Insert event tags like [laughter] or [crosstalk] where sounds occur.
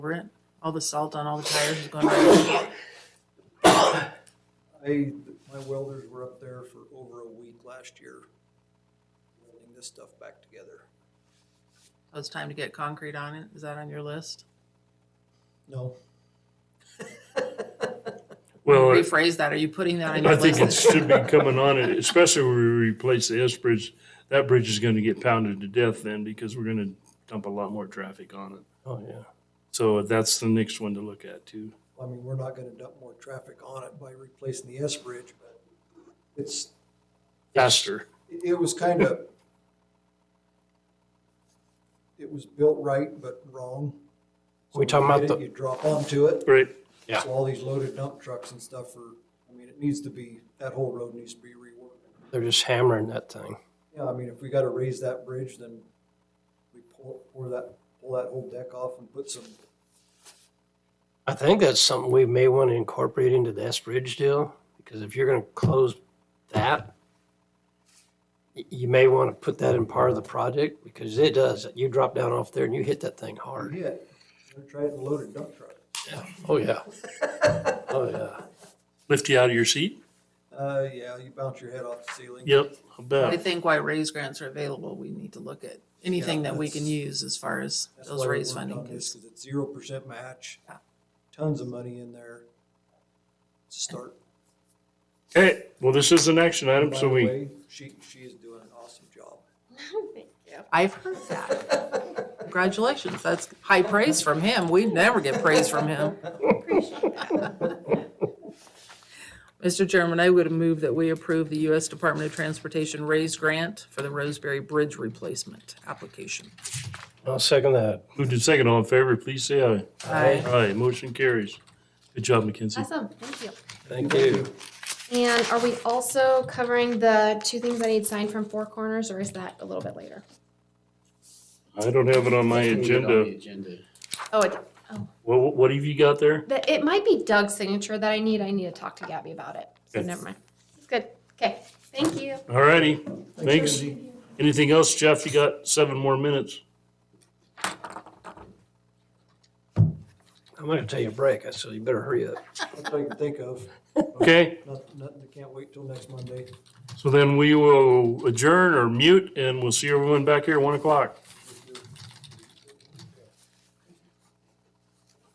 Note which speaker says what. Speaker 1: We're in, all the salt on all the tires is going right.
Speaker 2: I, my welders were up there for over a week last year, welding this stuff back together.
Speaker 1: So it's time to get concrete on it. Is that on your list?
Speaker 2: No,
Speaker 3: Well, I-
Speaker 1: Rephrase that. Are you putting that on your
Speaker 3: I think it
Speaker 1: list?
Speaker 3: should be coming on it, especially when we replace the S bridge. That bridge is gonna get pounded to death then because we're gonna dump a lot more traffic on it.
Speaker 4: Oh, yeah.
Speaker 3: So that's the next one to look at too.
Speaker 2: I mean, we're not gonna dump more traffic on it by replacing the S bridge, but it's,
Speaker 3: Faster.
Speaker 2: it it was kind of, it was built right but wrong. So
Speaker 4: We talking
Speaker 2: when you
Speaker 4: about
Speaker 2: hit it,
Speaker 4: the-
Speaker 2: You drop onto it,
Speaker 3: Right,
Speaker 4: Yeah.
Speaker 2: so all these loaded dump trucks and stuff are, I mean, it needs to be, that whole road needs to be reworked.
Speaker 4: They're just hammering that thing.
Speaker 2: Yeah, I mean, if we gotta raise that bridge, then we pull, pour that, pull that whole deck off and put some,
Speaker 4: I think that's something we may want to incorporate into the S Bridge deal, because if you're going to close that, y- you may want to put that in part of the project, because it does. You drop down off there and you hit that thing hard.
Speaker 2: yeah, try it in a loaded dump truck.
Speaker 4: Oh, yeah. Oh, yeah.
Speaker 3: lift you out of your seat?
Speaker 2: Uh, yeah, you bounce your head off the ceiling.
Speaker 3: Yep,
Speaker 1: I
Speaker 3: I bet.
Speaker 1: think why raise grants are available, we need to look at anything
Speaker 2: Yeah,
Speaker 1: that we can
Speaker 2: that's-
Speaker 1: use as far as
Speaker 2: That's why
Speaker 1: those
Speaker 2: we
Speaker 1: raise
Speaker 2: worked
Speaker 1: funding.
Speaker 2: on this,
Speaker 1: 'cause-
Speaker 2: Cause it's zero percent match,
Speaker 1: Yeah.
Speaker 2: tons of money in there to start.
Speaker 3: Hey, well, this is an action item,
Speaker 2: By
Speaker 3: so
Speaker 2: the
Speaker 3: we,
Speaker 2: way, She, she is doing an awesome job.
Speaker 5: [laughs] Thank you.
Speaker 1: I've heard that. Congratulations. That's high praise from him. We never get praise from him. Mr. Chairman, I would move that we approve the U.S. Department of Transportation raise grant for the Roseberry Bridge replacement application.
Speaker 4: I'll second that.
Speaker 3: moved in second, all in favor, please say aye.
Speaker 1: Aye.
Speaker 3: Aye, motion carries. Good job, McKenzie.
Speaker 5: Awesome, thank you.
Speaker 4: Thank you.
Speaker 5: And are we also covering the two things I need signed from Four Corners, or is that a little bit later?
Speaker 3: I don't have it on my
Speaker 6: Put it on the
Speaker 3: agenda.
Speaker 6: Agenda.
Speaker 5: Oh, it,
Speaker 3: What, what have you got there?
Speaker 5: that, it might be Doug's signature that I need, I need to talk to Gabby about it, so
Speaker 3: Okay.
Speaker 5: never mind. It's good, okay, thank you.
Speaker 3: All righty, thanks.
Speaker 2: Kenzie.
Speaker 3: Anything else, Jeff? You got seven more minutes.
Speaker 4: I'm going to take a break, so you better hurry up.
Speaker 2: That's all I can think of.
Speaker 3: Okay,
Speaker 2: Nothing, nothing, I can't wait till next Monday.
Speaker 3: so then we will adjourn or mute and we'll see everyone back here at one o'clock.